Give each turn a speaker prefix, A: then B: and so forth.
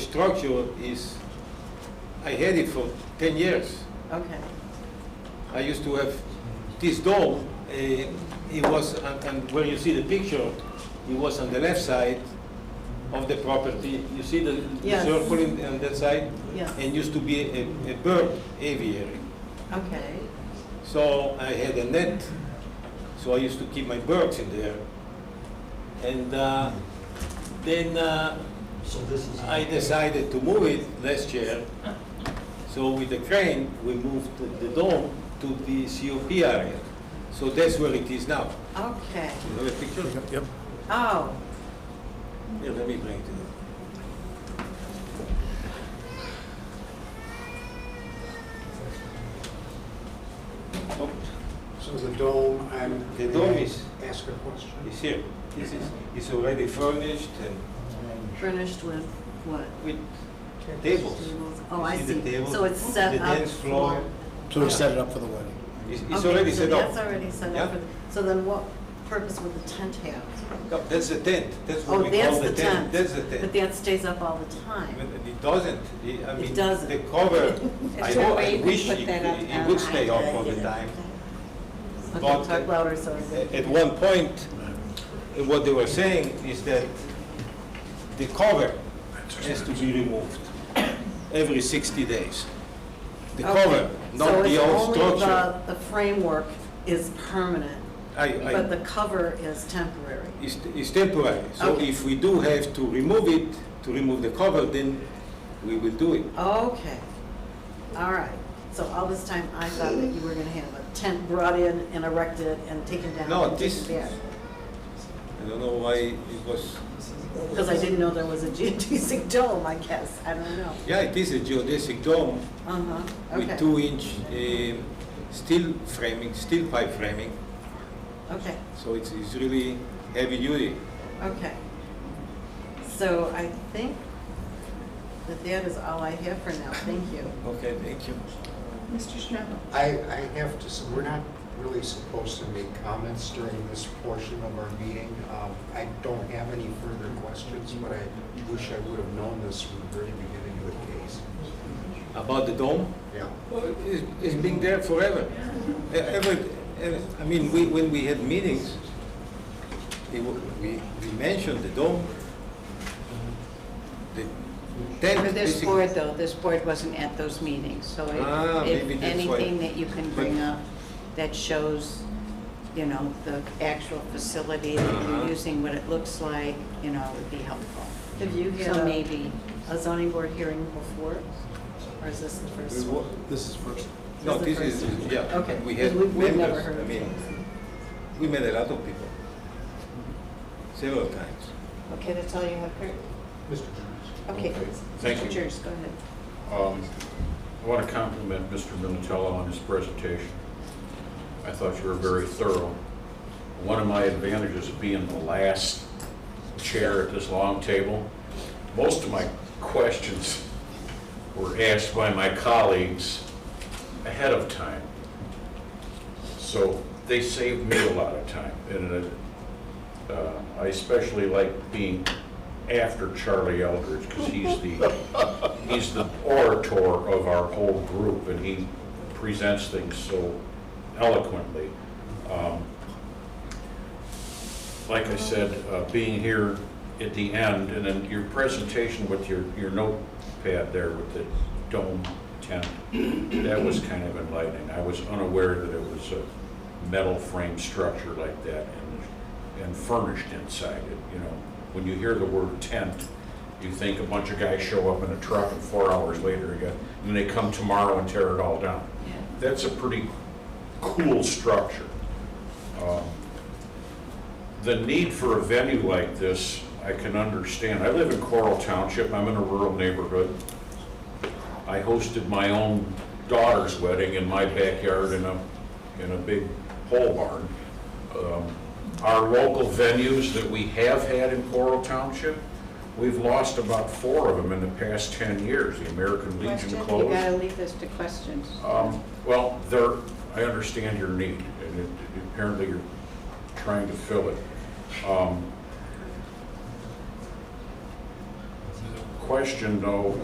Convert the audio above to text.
A: structure is, I had it for 10 years.
B: Okay,
A: I used to have this dome, uh, it was, and and where you see the picture, it was on the left side of the property. You see the the
B: Yes.
A: circle in- on that side?
B: Yes.
A: And used to be a a bird aviary.
B: okay,
A: So I had a net, so I used to keep my birds in there. And uh, then uh,
C: So this is.
A: I decided to move it last year. So with the crane, we moved the- the dome to the COP area. So that's where it is now.
B: okay.
A: You have a picture?
D: Yep.
B: Oh,
A: Here, let me bring it to you. Oh,
E: So the dome, I'm.
A: The dome is-
E: Ask a question.
A: It's here. This is, it's already furnished and
B: furnished with what?
A: with tables.
B: Oh, I
A: You see
B: see.
A: the table?
B: So it's uh,
A: The
B: set up
A: dance floor.
B: for.
D: So we set it up for the wedding.
A: It's it's
B: Okay,
A: already
B: so
A: set up.
B: That's already set
A: Yeah.
B: up. for- So then what purpose would the tent have?
A: No, That's the tent. That's
B: Oh,
A: what we
B: that's
A: call the
B: the
A: tent.
B: tent.
A: That's the
B: But
A: tent.
B: that stays up all the
A: But
B: time.
A: it doesn't. It- I
B: It
A: mean,
B: doesn't.
A: the cover, I
F: Is
A: know,
F: there a way you
A: I
F: can
A: wish
F: put
A: it
F: that up
A: it- it would
F: on
A: stay
F: like
A: up all
F: that,
A: the
F: you know?
A: time.
B: Okay,
A: But-
B: talk louder, so I
A: A-
B: can-
A: At one point, uh, what they were saying is that the cover has to be removed every 60 days. The
B: Okay.
A: cover,
B: So
A: not
B: it's
A: the old
B: only
A: structure.
B: the- The framework is permanent,
A: I,
B: but
A: I,
B: the cover is temporary.
A: is is temporary. So
B: Okay.
A: if we do have to remove it, to remove the cover, then we will do it.
B: Okay, all right. So all this time, I thought that you were gonna have a tent brought in and erected and taken down.
A: No,
B: and taken
A: this-
B: back.
A: I don't know why it was,
B: Because I didn't know there was a geodesic dome, I guess, I don't know.
A: yeah, it is a geodesic dome
B: Uh-huh,
A: with
B: okay,
A: two-inch um, steel framing, steel pipe framing,
B: okay,
A: so it's it's really heavy duty.
B: okay. So I think that that is all I have for now, thank you.
A: Okay, thank you.
F: Mr. Schnabel?
E: I, I have to, s- we're not really supposed to make comments during this portion of our meeting. Um, I don't have any further questions, but I wish I would have known this from the very beginning of the case.
A: About the dome?
E: Yeah.
A: Well, it's, it's been there forever. E- Ever, ever- I mean, we, when we had meetings, it wa- we, we mentioned the dome. The tent.
F: But this
A: basic-
F: board, though, this board wasn't at those meetings, so if-
A: Ah, maybe
F: if
A: that's why.
F: anything that you can bring up that shows, you know, the actual facility that
A: Uh-huh.
F: you're using, what it looks like, you know, would be helpful.
B: Have you had
F: So
B: a
F: maybe,
B: a zoning board hearing before, or is this the
A: We
B: first one?
A: wa-
D: This is first.
A: No,
B: This
A: this
B: is
A: is,
B: the first.
A: yeah.
B: Okay,
A: We had
B: we've- we've never
A: members,
B: heard
A: I
B: of
A: mean,
B: those.
A: we met a lot of people. Several times.
F: okay, that's all you have, Kurt?
E: Mr. Jones?
F: Okay.
G: Thank
F: Mr.
G: you.
F: Jers, go ahead.
G: Um, I want to compliment Mr. Minutella on his presentation. I thought you were very thorough. One of my advantages of being the last chair at this long table, most of my questions were asked by my colleagues ahead of time. So they saved me a lot of time. And uh, I especially like being after Charlie Eldridge because he's the he's the orator of our whole group, and he presents things so eloquently. Um, Like I said, uh, being here at the end, and then your presentation with your, your notepad there with the dome tent, that was kind of enlightening. I was unaware that it was a metal frame structure like that and, and furnished inside it, you know. When you hear the word tent, you think a bunch of guys show up in a truck and four hours later, you got, and they come tomorrow and tear it all down. That's a pretty cool structure. Um, The need for a venue like this, I can understand. I live in Coral Township, I'm in a rural neighborhood. I hosted my own daughter's wedding in my backyard in a, in a big pole barn. Um, Our local venues that we have had in Coral Township, we've lost about four of them in the past 10 years. The American Legion
F: Question,
G: closed.
F: you gotta leave this to questions.
G: Um, Well, there, I understand your need, and it- apparently you're trying to fill it. Um, question, though,